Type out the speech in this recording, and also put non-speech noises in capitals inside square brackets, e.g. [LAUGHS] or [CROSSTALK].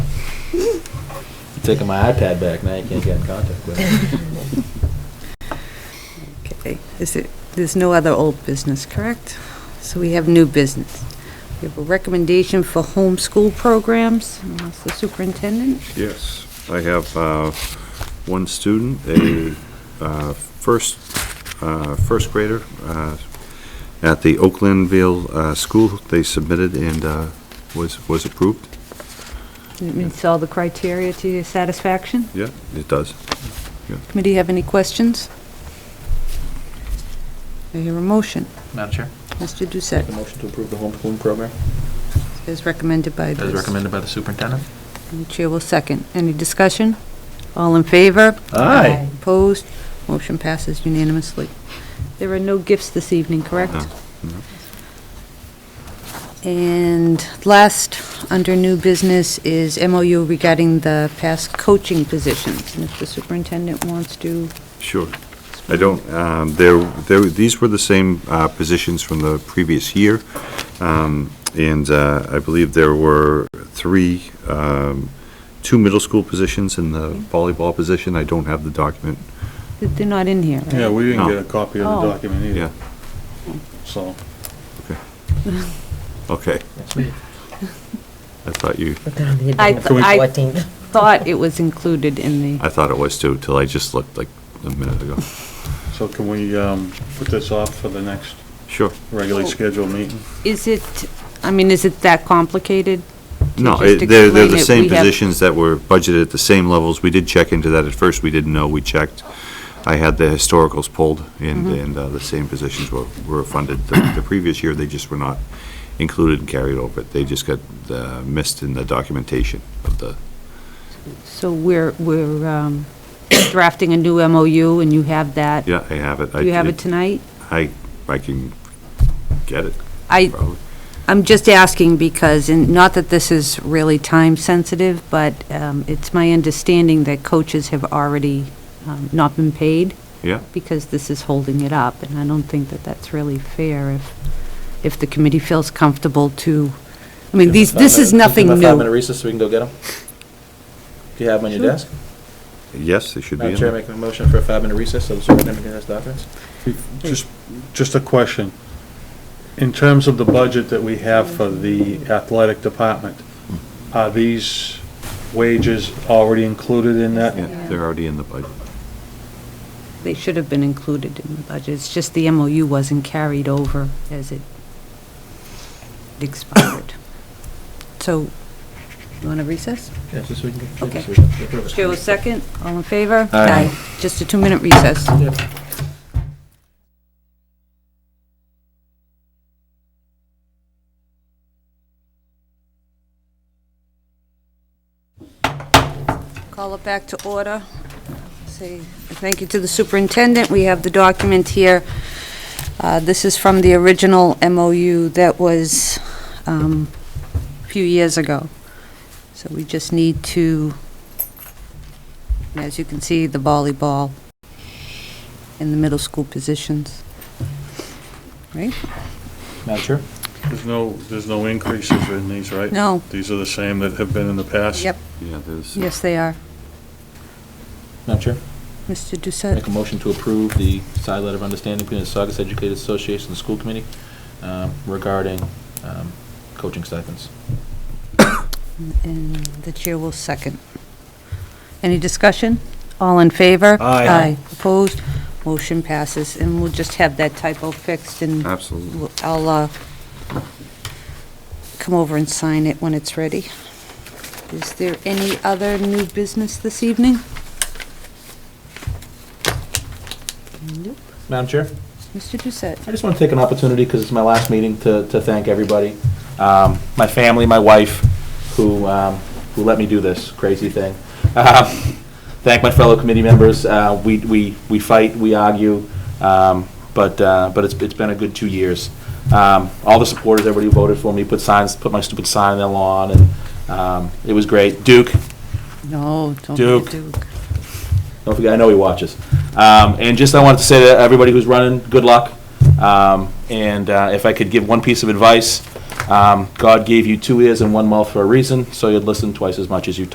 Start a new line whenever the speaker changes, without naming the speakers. Taking my iPad back, now you can't get in contact with it.
Okay, is it, there's no other old business, correct? So we have new business. We have a recommendation for homeschool programs, and that's the superintendent.
Yes, I have uh, one student, a uh, first, uh, first grader uh, at the Oaklandville uh, School. They submitted and uh, was, was approved.
It meets all the criteria to your satisfaction.
Yeah, it does.
Committee have any questions? I hear a motion.
Madam Chair,
Mr.
Make a
Doucette,
motion to approve the homeschooling program?
as recommended by the...
as recommended by the superintendent.
The chair will second. Any discussion? All in favor?
Aye.
Opposed? Motion passes unanimously. There are no gifts this evening, correct?
No, no.
And last, under new business, is MOU regarding the past coaching positions. And if the superintendent wants to...
Sure. I don't, um, there, there, these were the same, uh, positions from the previous year. Um, and, uh, I believe there were three, um, two middle school positions and the volleyball position. I don't have the document.
They're not in here, right?
Yeah, we didn't
No.
get a copy of the
Oh.
document
Yeah,
either, so.
okay.
Yes, we-
I thought you,
Put that on the
I
agenda
th-
for the
I-
14th.
[LAUGHS] Thought it was included in the...
I thought it was too, till I just looked like a minute ago.
So can we um, put this off for the next
Sure.
regularly
Oh.
scheduled meeting?
Is it, I mean, is it that complicated? to
No,
just
it- they're, they're
explain
the
it?
same
We have-
positions that were budgeted at the same levels. We did check into that at first. We didn't know. We checked. I had the historicals pulled and,
Mm-hmm.
and uh, the same positions were, were funded. The the previous year, they just were not included and carried over. They just got uh, missed in the documentation of the,
So we're, we're um, drafting a new MOU, and you have that?
yeah, I have it. I-
Do you have it tonight?
I, I can get it,
I,
probably.
I'm just asking because, and not that this is really time-sensitive, but um, it's my understanding that coaches have already um, not been paid
Yeah,
because this is holding it up, and I don't think that that's really fair if, if the committee feels comfortable to, I mean, these, this is nothing
Give them a five-minute
new.
recess so we can go get them? Do you have them on your
Sure.
desk?
yes, they should be in
Madam Chair,
there.
make a motion for a five-minute recess so the superintendent can ask documents?
Just, just a question. In terms of the budget that we have for the athletic department, are these wages already included in that?
Yeah, they're already in the budget.
They should have been included in the budget. It's just the MOU wasn't carried over as it expired. So, you want to recess?
Yes, so we can.
Okay. Chair will second. All in favor?
Aye.
Just a two-minute recess. Call it back to order. Say thank you to the superintendent. We have the document here. Uh, This is from the original MOU that was um, a few years ago. So we just need to, as you can see, the volleyball and the middle school positions. Right?
Madam Chair?
There's no, there's no increases in these, right?
No.
These are the same that have been in the past?
Yep,
Yeah, there's,
yes, they are.
Madam Chair?
Mr.
Make
Doucette,
a motion to approve the side letter of understanding between the Saugus Educated Association and the school committee um, regarding um, coaching stipends.
and the chair will second. Any discussion? All in favor?
Aye.
Opposed? Motion passes, and we'll just have that typo fixed, and
absolutely.
we'll- I'll uh, come over and sign it when it's ready. Is there any other new business this evening? Nope.
Madam Chair?
Mr. Doucette?
I just want to take an opportunity, because it's my last meeting, to, to thank everybody. Um, My family, my wife, who, um, who let me do this crazy thing. Um, Thank my fellow committee members. Uh, We, we, we fight, we argue, um, but, uh, but it's, it's been a good two years. Um, All the supporters, everybody who voted for me, put signs, put my stupid sign on their lawn, and um, it was great. Duke,
No, don't be a
Duke.
Duke.
Don't forget, I know he watches. Um, and just, I wanted to say to everybody who's running, good luck. Um, and uh, if I could give one piece of advice, um, God gave you two ears and one mouth for a reason, so you'd listen twice as much as you